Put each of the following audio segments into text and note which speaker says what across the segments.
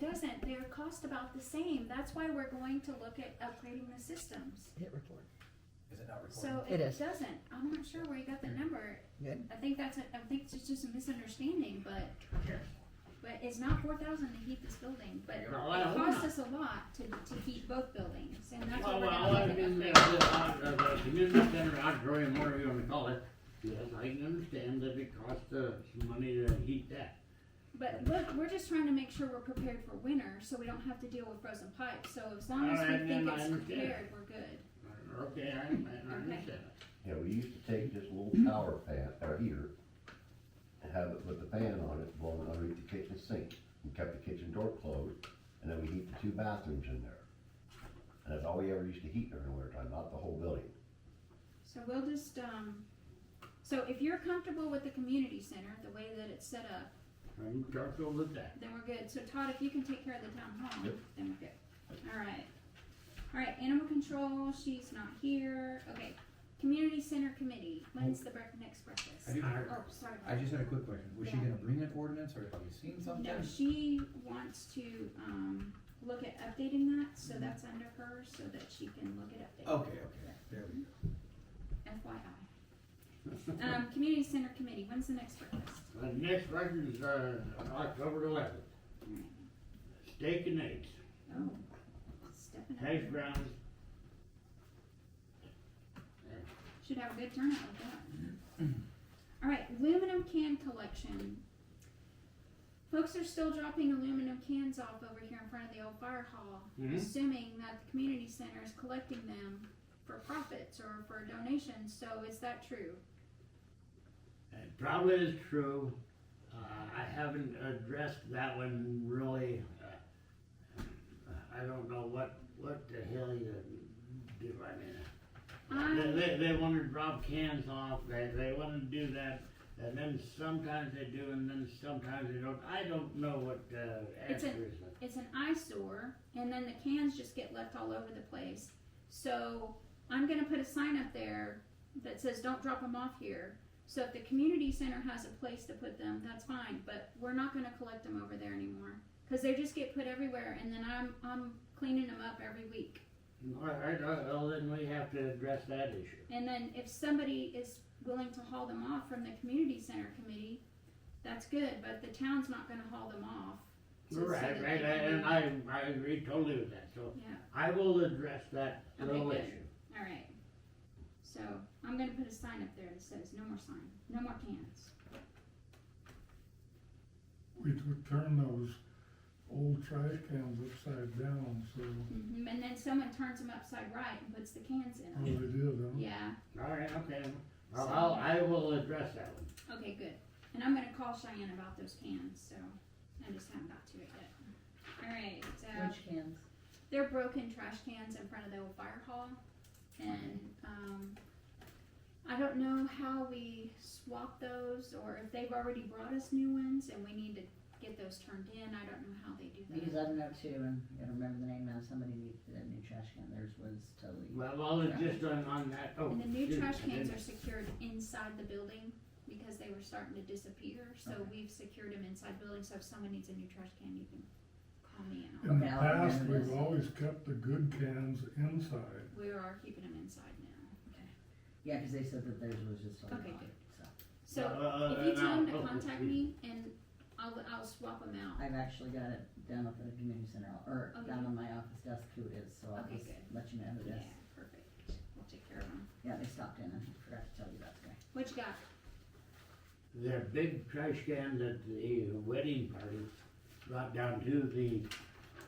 Speaker 1: doesn't, they're cost about the same, that's why we're going to look at upgrading the systems.
Speaker 2: hit record.
Speaker 3: Is it not recorded?
Speaker 1: So
Speaker 2: It
Speaker 1: it
Speaker 2: is.
Speaker 1: doesn't, I'm not sure where you got the number,
Speaker 2: Good.
Speaker 1: I think that's, a- I think it's just a misunderstanding, but,
Speaker 3: Here.
Speaker 1: but it's not four thousand to heat this building, but
Speaker 3: There
Speaker 1: it
Speaker 3: you go.
Speaker 4: Well, I don't
Speaker 1: costs
Speaker 4: know.
Speaker 1: us a lot to, to heat both buildings, and that's
Speaker 4: Well,
Speaker 1: what we're
Speaker 4: well,
Speaker 1: gonna
Speaker 4: I
Speaker 1: look at
Speaker 4: mean, uh,
Speaker 1: upgrading.
Speaker 4: the, uh, the community center auditorium, whatever you wanna call it, yes, I can understand that it costs, uh, some money to heat that.
Speaker 1: But look, we're just trying to make sure we're prepared for winter, so we don't have to deal with frozen pipes, so as long as we
Speaker 4: Alright,
Speaker 1: think
Speaker 4: then I
Speaker 1: it's
Speaker 4: understand.
Speaker 1: prepared, we're good.
Speaker 4: Okay, I, I understand that.
Speaker 5: Yeah, we used to take this little power fan, or heater, and have it with the fan on it blowing underneath the kitchen sink. We kept the kitchen door closed, and then we heat the two bathrooms in there. And that's all we ever used to heat during the winter time, not the whole building.
Speaker 1: So we'll just, um, so if you're comfortable with the community center, the way that it's set up,
Speaker 4: I'm comfortable with that.
Speaker 1: then we're good. So Todd, if you can take care of the town hall,
Speaker 5: Yep.
Speaker 1: then we're good. Alright. Alright, animal control, she's not here. Okay, community center committee, when's the break, next
Speaker 3: I
Speaker 1: breakfast?
Speaker 3: do,
Speaker 1: Oh, sorry.
Speaker 3: I just had a quick question, was she
Speaker 1: Yeah.
Speaker 3: gonna bring an ordinance, or have you seen something?
Speaker 1: No, she wants to, um, look at updating that,
Speaker 3: Mm-hmm.
Speaker 1: so that's under her, so that she can look at updating.
Speaker 3: Okay, okay, there we go.
Speaker 1: FYI. Um, community center committee, when's the next breakfast?
Speaker 4: The next record is, uh, October eleventh,
Speaker 1: Alright.
Speaker 4: steak and eggs,
Speaker 1: Oh, stepping
Speaker 4: hash
Speaker 1: up.
Speaker 4: browns.
Speaker 1: Should have a good turnout with that. Alright, aluminum can collection. Folks are still dropping aluminum cans off over here in front of the old fire hall,
Speaker 4: Mhm.
Speaker 1: assuming that the community center is collecting them for profits or for donations, so is that true?
Speaker 4: It probably is true. Uh, I haven't addressed that one really. Uh, I don't know what, what the hell you do, I mean. They,
Speaker 1: I,
Speaker 4: they, they wanna drop cans off, they, they wanna do that, and then sometimes they do, and then sometimes they don't. I don't know what, uh,
Speaker 1: It's
Speaker 4: answer
Speaker 1: a-
Speaker 4: is.
Speaker 1: it's an eyesore, and then the cans just get left all over the place. So I'm gonna put a sign up there that says, don't drop them off here. So if the community center has a place to put them, that's fine, but we're not gonna collect them over there anymore. Cause they just get put everywhere, and then I'm, I'm cleaning them up every week.
Speaker 4: All right, uh, well, then we have to address that issue.
Speaker 1: And then if somebody is willing to haul them off from the community center committee, that's good, but the town's not gonna haul them off. So- so
Speaker 4: Right,
Speaker 1: that
Speaker 4: right,
Speaker 1: they can-
Speaker 4: and I, I agree totally with that, so
Speaker 1: Yeah.
Speaker 4: I will address that
Speaker 1: Okay,
Speaker 4: little
Speaker 1: good.
Speaker 4: issue.
Speaker 1: Alright. So I'm gonna put a sign up there that says no more sign, no more cans.
Speaker 6: We would turn those old trash cans upside down, so,
Speaker 1: And then someone turns them upside right and puts the cans in
Speaker 6: oh, they
Speaker 1: them.
Speaker 6: did, huh?
Speaker 1: Yeah,
Speaker 4: All right, okay. I'll,
Speaker 1: So-
Speaker 4: I'll, I will address that one.
Speaker 1: okay, good. And I'm gonna call Cheyenne about those cans, so I just haven't got to it yet. Alright, uh,
Speaker 7: Which cans?
Speaker 1: they're broken trash cans in front of the old fire hall. And, um, I don't know how we swap those or if they've already brought us new ones and we need to get those turned in. I don't know how they do that.
Speaker 7: Because I don't know too, and I gotta remember the name now, somebody needed that new trash can, theirs was totally.
Speaker 4: Well, I'll just on, on that, oh.
Speaker 1: And the new
Speaker 4: shoot,
Speaker 1: trash
Speaker 4: I
Speaker 1: cans
Speaker 4: didn't-
Speaker 1: are secured inside the building because they were starting to disappear, so
Speaker 3: Okay.
Speaker 1: we've secured them inside building, so if someone needs a new trash can, you can call me and I'll,
Speaker 6: In the
Speaker 7: Okay, I'll
Speaker 6: past,
Speaker 7: remember
Speaker 6: we've
Speaker 7: this.
Speaker 6: always kept the good cans inside.
Speaker 1: we are keeping them inside now.
Speaker 7: Yeah, cause they said that theirs was just
Speaker 1: Okay,
Speaker 7: totally gone,
Speaker 1: good.
Speaker 7: so.
Speaker 1: So
Speaker 4: Uh,
Speaker 1: if you tell them to
Speaker 4: uh, uh,
Speaker 1: contact me and I'll, I'll swap them out.
Speaker 7: I've actually got it down up at the community center, uh, or
Speaker 1: Oh,
Speaker 7: down
Speaker 1: yeah.
Speaker 7: on my office desk who it is, so I'll
Speaker 1: Okay,
Speaker 7: just
Speaker 1: good.
Speaker 7: let you know who
Speaker 1: Yeah,
Speaker 7: it is.
Speaker 1: perfect. We'll take care of them.
Speaker 7: Yeah, they stopped in, and I forgot to tell you about today.
Speaker 1: What you got?
Speaker 4: Their big trash can that the wedding party brought down to the,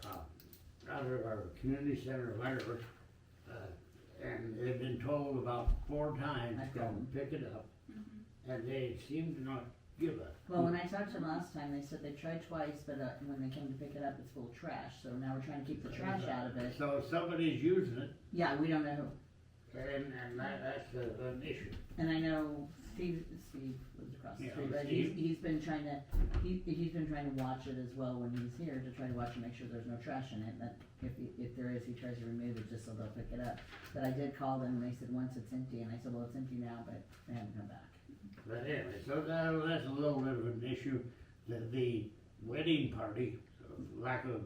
Speaker 4: uh, out of our community center or whatever. uh, And they've been told about four times,
Speaker 7: I
Speaker 4: come
Speaker 7: don't.
Speaker 4: pick it up,
Speaker 1: Mm-hmm.
Speaker 4: and they seem to not give a.
Speaker 7: Well, when I talked to them last time, they said they tried twice, but, uh, when they came to pick it up, it's full of trash, so now we're trying to keep the trash out of it.
Speaker 4: So somebody's using it,
Speaker 7: Yeah, we don't know who.
Speaker 4: and, and that, that's a- an issue.
Speaker 7: And I know Steve, Steve lives across the
Speaker 4: Yeah,
Speaker 7: street, but he's,
Speaker 4: Steve.
Speaker 7: he's been trying to, he, he's been trying to watch it as well when he's here, to try to watch and make sure there's no trash in it, that if, he- if there is, he tries to remove it just so they'll pick it up. But I did call them, and they said, once it's empty, and I said, well, it's empty now, but they haven't come back.
Speaker 4: But anyway, so that, that's a little bit of an issue, that the wedding party, lack of